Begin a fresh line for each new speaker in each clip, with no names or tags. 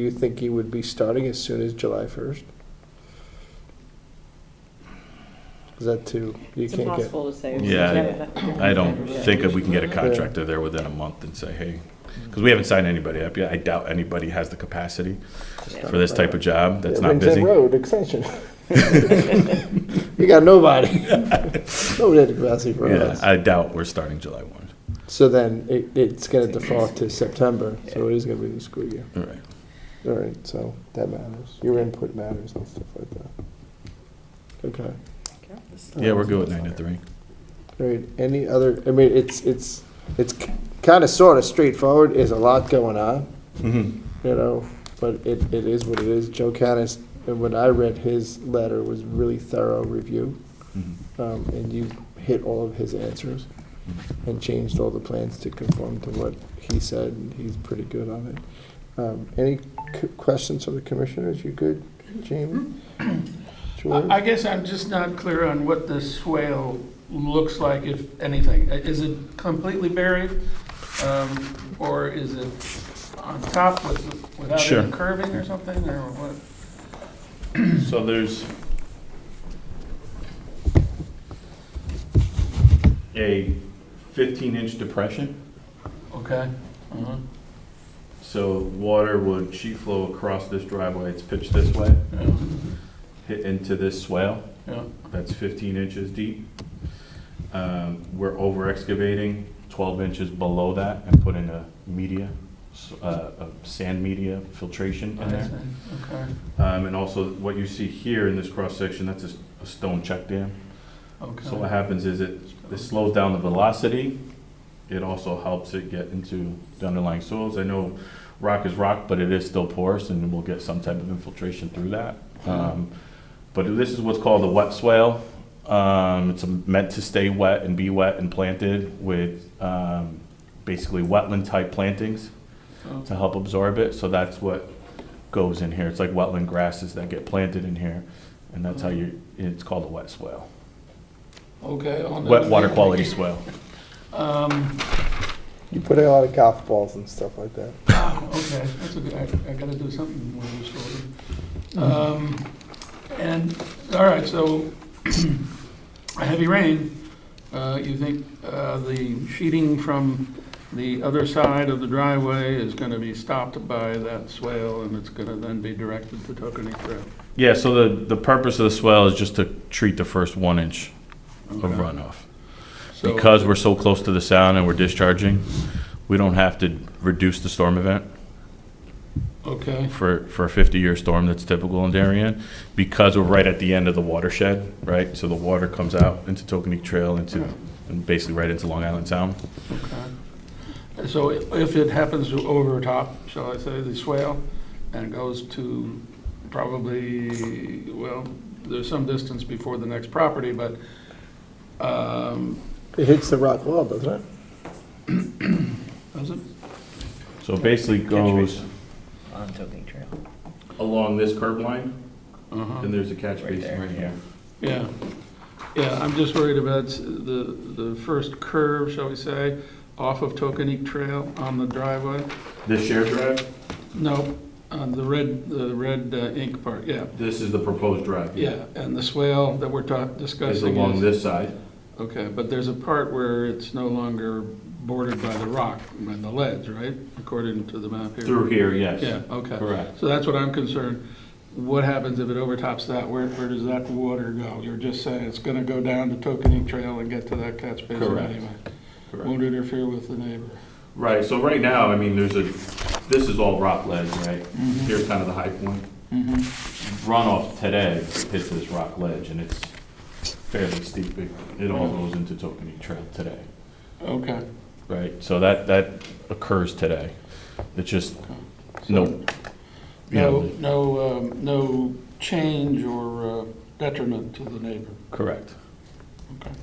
Do you think he would be starting as soon as July 1st? Is that too, you
It's
can't get,
impossible to say.
Yeah, I don't think that we can get a contractor there within a month and say, hey, because we haven't signed anybody up yet. I doubt anybody has the capacity for this type of job that's not
Lincoln
busy.
Road extension. You got nobody. Nobody at the capacity for
Yeah,
us.
I doubt we're starting July one.
So then it, it's gonna default to September, so it is gonna be the school year.
All right.
All right, so that matters. Your input matters and stuff like that. Okay.
Yeah, we're good with nine to three.
All right, any other, I mean, it's, it's, it's kind of sort of straightforward. There's a lot going on.
Mhm.
you know, but it, it is what it is. Joe Canis, and when I read his letter, was really thorough review,
Mhm.
um, and you hit all of his answers
Mhm.
and changed all the plans to conform to what he said, and he's pretty good on it. Um, any c- questions from the commissioners? You good, Jamie? George?
I I guess I'm just not clear on what the swale looks like, if anything. I- Is it completely buried? Um, Or is it on top with, without
Sure.
any curving or something, or what?
So there's a fifteen inch depression,
Okay? uh-huh,
so water would sheet flow across this driveway. It's pitched this way,
yeah,
hit into this swale.
yeah.
That's 15 inches deep. Um, We're over excavating 12 inches below that and putting a media, s- uh, a sand media filtration
I
in there.
see, Okay,
Um, And also, what you see here in this cross-section, that's a s- a stone check dam.
okay.
So what happens is it it slows down the velocity. It also helps it get into the underlying soils. I know rock is rock, but it is still porous and we'll get some type of infiltration through that. Um, But this is what's called a wet swale. Um, It's meant to stay wet and be wet and planted with um, basically wetland-type plantings
So-
to help absorb it. So that's what goes in here. It's like wetland grasses that get planted in here. And that's how you, it's called a wet swale,
Okay. on the-
wet water quality swale.
Um,
You put in a lot of golf balls and stuff like that.
Ah, Okay, that's a good, I, I gotta do something with this order. Um, and, all right, so, a heavy rain, uh, you think, uh, the sheeting from the other side of the driveway is gonna be stopped by that swale, and it's gonna then be directed to Tokenie Trail?
Yeah, so the, the purpose of the swell is just to treat the first one inch of
Okay.
runoff.
So-
Because we're so close to the sound and we're discharging, we don't have to reduce the storm event
Okay,
for, for a 50-year storm that's typical in Darien, because we're right at the end of the watershed, right? So the water comes out into Tokenique Trail, into, and basically right into Long Island Sound.
okay. So if it happens to overtop, shall I say, the swale, and goes to probably, well, there's some distance before the next property, but, um,
It hits the rock wall, doesn't it?
does it?
So it basically goes
on Tokenie Trail.
along this curb line,
Uh-huh.
and there's a catch
Right
basin
there.
right here.
Yeah, yeah, I'm just worried about s- the, the first curve, shall we say, off of Tokenique Trail on the driveway.
This shared drive,
No, on the red, the red uh, ink part, yeah,
this is the proposed drive.
yeah, and the swale that we're talk- discussing
It's
is.
along this side.
Okay, but there's a part where it's no longer bordered by the rock, by the ledge, right? According to the map here?
Through here, yes.
Yeah, okay.
Correct.
So that's what I'm concerned. What happens if it overtops that? Where, where does that water go? You're just saying it's gonna go down to Tokenie Trail and get to that catch basin
Correct.
anyway. Won't interfere with the neighbor.
Right, so right now, I mean, there's a, this is all rock ledge, right? Here's kind of the high point.
Mm-hmm.
Runoff today hits this rock ledge, and it's fairly steep. It- It all goes into Tokenie Trail today,
Okay.
right? So that, that occurs today. It's just,
So
no, you
No,
know,
no, um, no change or uh, detriment to the neighbor.
correct.
Okay.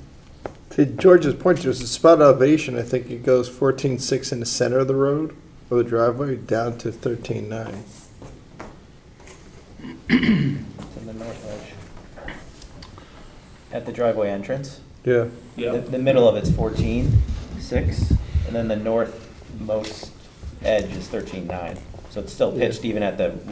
To George's point, there's a spot elevation, I think it goes fourteen six in the center of the road, or the driveway, down to thirteen nine.
It's in the north edge. At the driveway entrance.
Yeah.
The, the middle of it's fourteen, six, and then the northmost edge is thirteen, nine. So so it's still pitched even at the